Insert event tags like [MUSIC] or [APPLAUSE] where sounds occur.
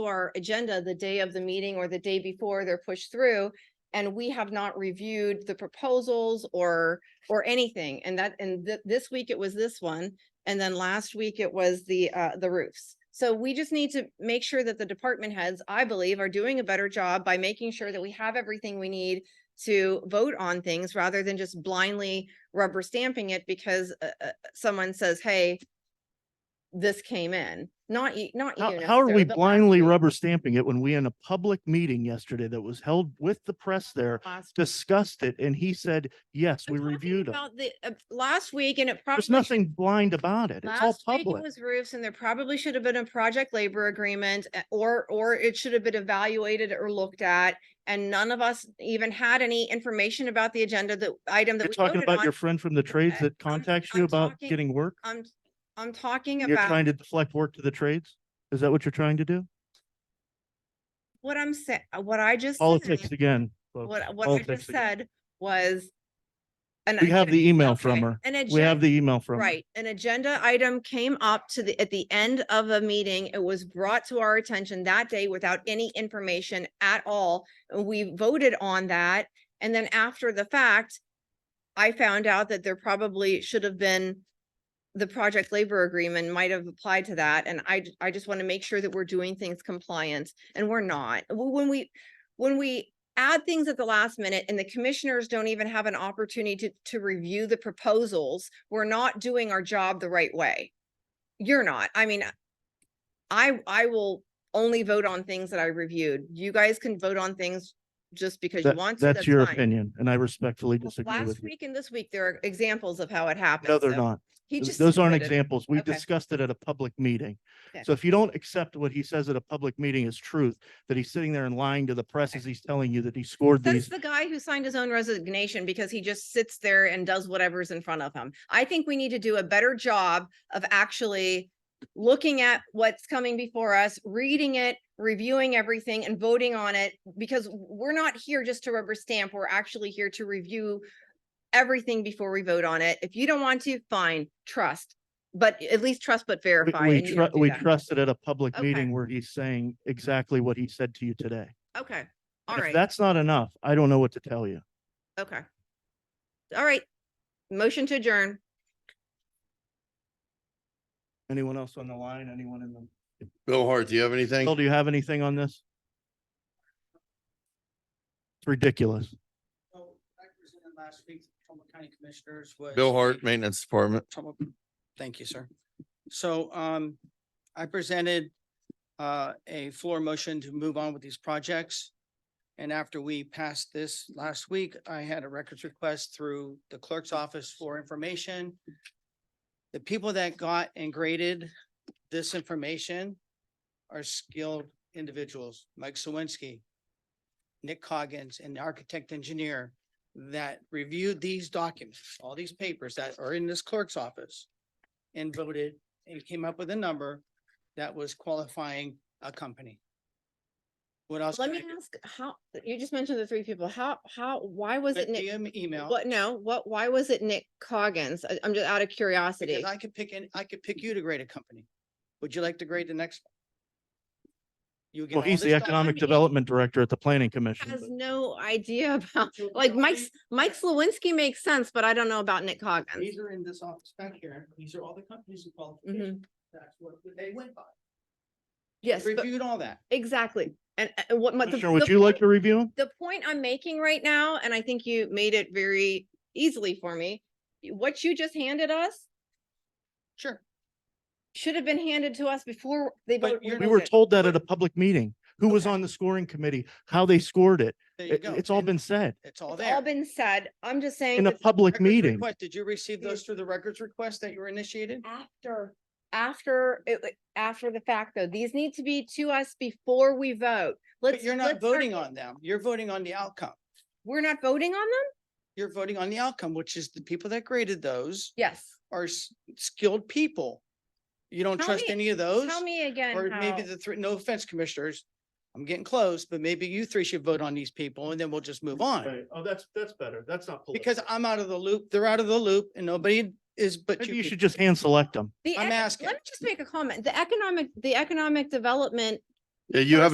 our agenda the day of the meeting or the day before they're pushed through. And we have not reviewed the proposals or, or anything. And that, and th- this week it was this one. And then last week it was the, uh, the roofs. So we just need to make sure that the department heads, I believe, are doing a better job by making sure that we have everything we need to vote on things rather than just blindly rubber stamping it because, uh, uh, someone says, hey, this came in, not, you- not you. How, how are necessarily, we but last blindly week. rubber stamping it when we in a public meeting yesterday that was held with the press there Last discussed it and he said, yes, we I'm talking reviewed it. About the, uh, last week and it probably. There's nothing blind about it. It's all Last week it public. was roofs and there probably should have been a project labor agreement uh, or, or it should have been evaluated or looked at. And none of us even had any information about the agenda, the item that You're we talking voted about your on. friend from the trades I- that I'm- contacts you I'm about talking getting work? I'm, I'm talking You're trying about to deflect work to the trades? Is that what you're trying to do? what I'm saying, what I just. said, Politics again. folks. What, what I Politics just again. said was. an We have agenda- the email from okay, her. an We have agenda- the email from her. Right, an agenda item came up to the, at the end of a meeting, it was brought to our attention that day without any information at all. and We voted on that, and then after the fact, I found out that there probably should have been, the project labor agreement might have applied to that, and I, j- I just want to make sure that we're doing things compliant, and we're not. W- When we, when we add things at the last minute and the commissioners don't even have an opportunity to, to review the proposals, we're not doing our job the right way. You're not. I mean, I, I will only vote on things that I reviewed. You guys can vote on things just because you That- want to. that's your fine. opinion and I respectfully Well, disagree with Last you. week and this week, there are examples of how it happened. No, they're so not. He Th- just. Those aren't admitted- examples. We Okay. discussed it at a public meeting. Okay. So if you don't accept what he says at a public meeting as truth, that he's sitting there and lying to the press as he's telling you that he scored That's these. the guy who signed his own resignation because he just sits there and does whatever's in front of him. I think we need to do a better job of actually looking at what's coming before us, reading it, reviewing everything and voting on it because we're not here just to rubber stamp. We're actually here to review everything before we vote on it. If you don't want to, fine, trust, but at least trust but We- verify. We, and you don't tru- do we that. trusted at a public Okay. meeting where he's saying exactly what he said to you today. Okay, all And If right, that's not enough, I don't know what to tell you. okay. All right, motion to adjourn. Anyone else on the line? Anyone in the? Bill Hart, do you have anything? Bill, do you have anything on this? It's ridiculous. So I presented last week, to Trumbull County Commissioners was. Bill Hart, the- Maintenance Department. Trumbull- Thank you, sir. So um, I presented uh, a floor motion to move on with these projects. And after we passed this last week, I had a records request through the clerk's office for information. The people that got and graded this information are skilled individuals, Mike Sawinski, Nick Coggins, and the architect engineer that reviewed these documents, all these papers that are in this clerk's office and voted and came up with a number that was qualifying a company. What else? Let can I me do? ask, how, you just mentioned the three people, how, how, why was it But Nick? DM email. What, no, what, why was it Nick Coggins? I- I'm just out of curiosity. Because I could pick, an- I could pick you to grade a company. Would you like to grade the next? one? You get Well, all he's the this doc- economic mean, development director at the planning commission. Has but- no idea [LAUGHS] about, You'll like know Mike's, these- Mike Slawinski makes sense, but I don't know about Nick Coggins. These are in this office back here. These are all the companies and qualifications. That's what they went by. Mm-hmm. Yes, but- Reviewed all that. exactly. And, uh, and what, what the- Commissioner, the would you like point- to review them? the point I'm making right now, and I think you made it very easily for me, what you just handed us Sure. should have been handed to us before they But voted. you're We not- were Okay. told that at a public meeting. Who was Okay. on the scoring committee, how they scored it. There you It- go. It's all And been said It's all It's all there. been said. I'm just saying. in a that public Records meeting. request, Did you receive Mm. those through the records request that you were initiated? After, after, it wa- after the fact though, these need to be to us before we vote. But Let's. you're let's not start- voting on them. You're voting on the outcome. We're not voting on them? You're voting on the outcome, which is the people that graded those Yes. are s- skilled people. You don't Tell trust me- any of those? Tell me again. Or maybe how- the three, no offense, commissioners, I'm getting close, but maybe you three should vote on these people and then we'll just move on. Right. Oh, that's, that's better. That's not. Because political. I'm out of the loop, they're out of the loop and nobody is but Maybe you. you should people. just hand select them. The I'm ec- asking. Let me just make a comment. The economic, the economic development Yeah, You have